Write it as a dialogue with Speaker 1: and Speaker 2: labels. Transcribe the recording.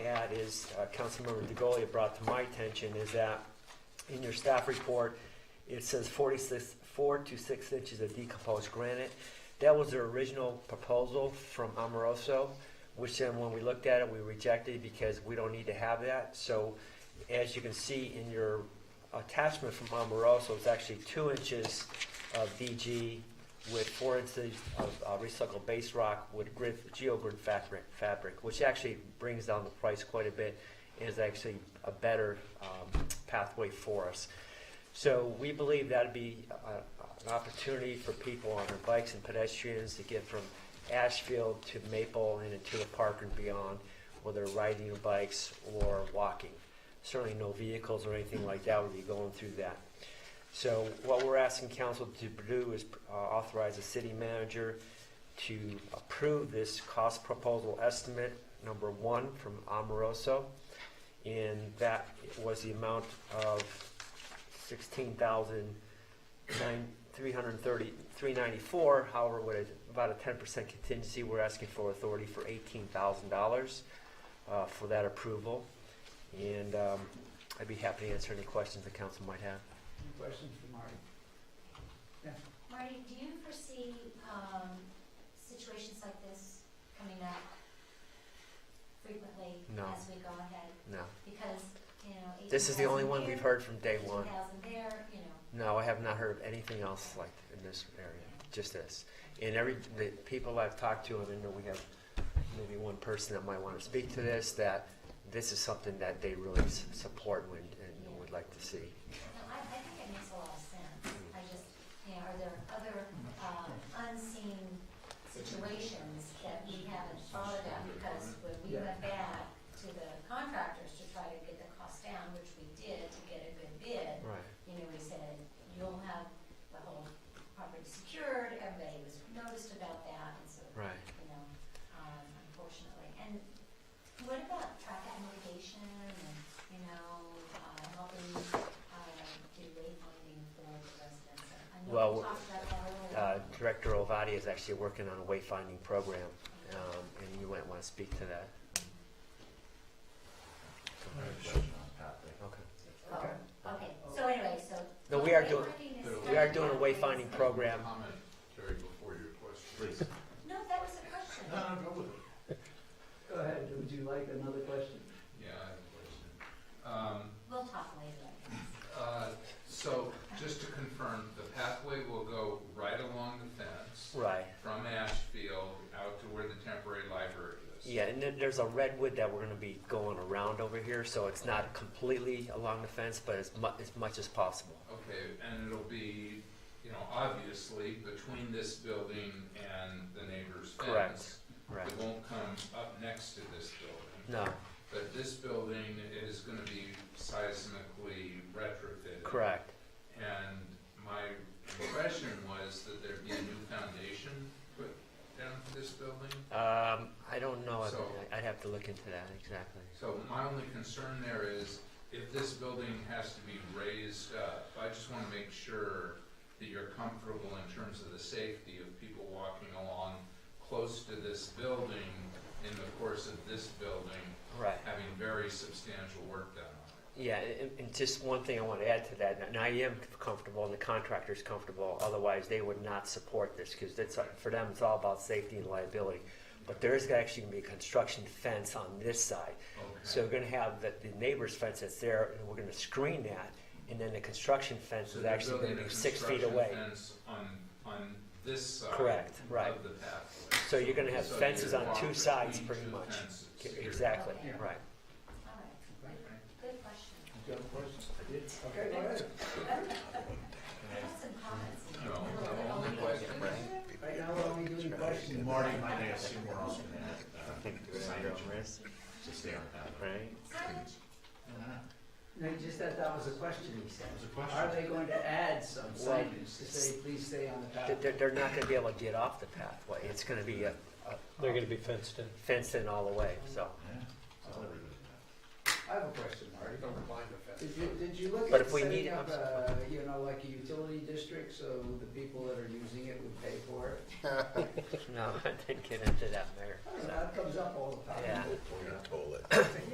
Speaker 1: add is, uh, Councilmember DeGolia brought to my attention is that in your staff report, it says forty-six, four to six inches of decomposed granite. That was their original proposal from Amoroso, which then when we looked at it, we rejected because we don't need to have that. So as you can see in your attachment from Amoroso, it's actually two inches of DG with four inches of uh, recycled base rock with grid, geogrid fabric, fabric, which actually brings down the price quite a bit and is actually a better um, pathway for us. So we believe that'd be a- an opportunity for people on their bikes and pedestrians to get from Ashfield to Maple and into the park and beyond, whether riding your bikes or walking. Certainly no vehicles or anything like that would be going through that. So what we're asking council to do is uh, authorize the city manager to approve this cost proposal estimate, number one, from Amoroso. And that was the amount of sixteen thousand nine, three hundred and thirty, three ninety-four. However, with a- about a ten percent contingency, we're asking for authority for eighteen thousand dollars uh, for that approval. And um, I'd be happy to answer any questions the council might have.
Speaker 2: Any questions for Marty?
Speaker 3: Marty, do you foresee um, situations like this coming up frequently
Speaker 1: No.
Speaker 3: as we go ahead?
Speaker 1: No.
Speaker 3: Because, you know,
Speaker 1: This is the only
Speaker 3: 18,000
Speaker 1: one we've
Speaker 3: here,
Speaker 1: heard from day one.
Speaker 3: 18,000 there, you know.
Speaker 1: No, I have not heard of anything else like in this area, just this. And every, the people I've talked to, and I know we have maybe one person that might want to speak to this, that this is something that they really s- support and, and would like to see.
Speaker 3: No, I, I think it makes a lot of sense.
Speaker 1: Mm.
Speaker 3: I just, you know, are there other uh, unseen situations that we haven't thought about? Because when we
Speaker 2: Yeah.
Speaker 3: went back to the contractors to try to get the cost down, which we did to get a good bid,
Speaker 1: Right.
Speaker 3: you know, we said, you'll have the whole property secured, everybody was noticed about that, and so,
Speaker 1: Right.
Speaker 3: you know, um, unfortunately. And what about traffic mitigation and, you know, uh, helping, uh, do wayfinding for the residents? I know
Speaker 1: Well,
Speaker 3: we talked about that earlier.
Speaker 1: Uh, Director Ovadi is actually working on a wayfinding program, um, and you might want to speak to that. Okay.
Speaker 2: Okay.
Speaker 3: Oh, okay, so anyway, so.
Speaker 1: No, we are
Speaker 3: wayfinding
Speaker 1: doing,
Speaker 3: is
Speaker 1: we are
Speaker 3: done
Speaker 1: doing a
Speaker 3: now.
Speaker 1: wayfinding program.
Speaker 4: Comment, Terry, before your question.
Speaker 3: No, that was a question.
Speaker 4: No, no, go with it.
Speaker 2: Go ahead, would you like another question?
Speaker 4: Yeah, I have a question. Um,
Speaker 3: We'll talk later.
Speaker 4: uh, so, just to confirm, the pathway will go right along the fence
Speaker 1: Right.
Speaker 4: from Ashfield out to where the temporary library is.
Speaker 1: Yeah, and then there's a redwood that we're gonna be going around over here, so it's not completely along the fence, but as mu- as much as possible.
Speaker 4: Okay, and it'll be, you know, obviously between this building and the neighbor's
Speaker 1: Correct.
Speaker 4: fence.
Speaker 1: Right.
Speaker 4: It won't come up next to this building.
Speaker 1: No,
Speaker 4: But this building is gonna be seismically retrofitted.
Speaker 1: correct.
Speaker 4: And my impression was that there'd be a new foundation put down for this building.
Speaker 1: Um, I don't know, I'd-
Speaker 4: So-
Speaker 1: I'd have to look into that, exactly.
Speaker 4: So my only concern there is if this building has to be raised up, I just wanna make sure that you're comfortable in terms of the safety of people walking along close to this building in the course of this building,
Speaker 1: Right.
Speaker 4: having very substantial work done on it.
Speaker 1: Yeah, and, and just one thing I want to add to that, and I am comfortable, and the contractor's comfortable, otherwise they would not support this, because that's, for them, it's all about safety and liability. But there is actually gonna be a construction fence on this side, so
Speaker 4: Okay,
Speaker 1: we're gonna have the, the neighbor's fence that's there, and we're gonna screen that, and then the construction fence
Speaker 4: so
Speaker 1: is
Speaker 4: they're
Speaker 1: actually
Speaker 4: building
Speaker 1: gonna
Speaker 4: a
Speaker 1: be six feet
Speaker 4: construction
Speaker 1: away.
Speaker 4: fence on, on this side.
Speaker 1: Correct, right.
Speaker 4: Of the pathway.
Speaker 1: So you're gonna have
Speaker 4: So
Speaker 1: fences
Speaker 4: you
Speaker 1: on
Speaker 4: walk
Speaker 1: two
Speaker 4: between
Speaker 1: sides,
Speaker 4: two
Speaker 1: pretty much.
Speaker 4: fences
Speaker 1: K-
Speaker 4: here.
Speaker 1: Exactly,
Speaker 3: Yeah.
Speaker 1: right.
Speaker 3: All right, good, good question.
Speaker 2: You got a question? I did. Okay, go ahead.
Speaker 3: I have some comments.
Speaker 4: No, the only question,
Speaker 2: Right now, we're only doing questions.
Speaker 5: Marty might ask you more often
Speaker 4: uh,
Speaker 5: than that. To stay on that.
Speaker 1: Right?
Speaker 3: Signage?
Speaker 2: No, you just said that was a question he said.
Speaker 5: There's a
Speaker 2: Are
Speaker 5: question.
Speaker 2: they going to add some
Speaker 1: Well-
Speaker 2: signage to say, please stay on the
Speaker 1: They're-
Speaker 2: path?
Speaker 1: They're, they're not gonna be able to get off the pathway, it's gonna be a, a-
Speaker 6: They're gonna be fenced in.
Speaker 1: fenced in all the way, so.
Speaker 5: Yeah. I'll agree with that.
Speaker 2: I have a question, Marty.
Speaker 4: Don't blind the fence.
Speaker 2: Did you, did you look
Speaker 1: But
Speaker 2: at
Speaker 1: if we need-
Speaker 2: setting up a, you know, like a utility district so the people that are using it would pay for it?
Speaker 1: No, I didn't get into that, Mayor.
Speaker 4: Oh,
Speaker 2: I don't know, that comes up all the time.
Speaker 1: Yeah.
Speaker 5: Or you toll it.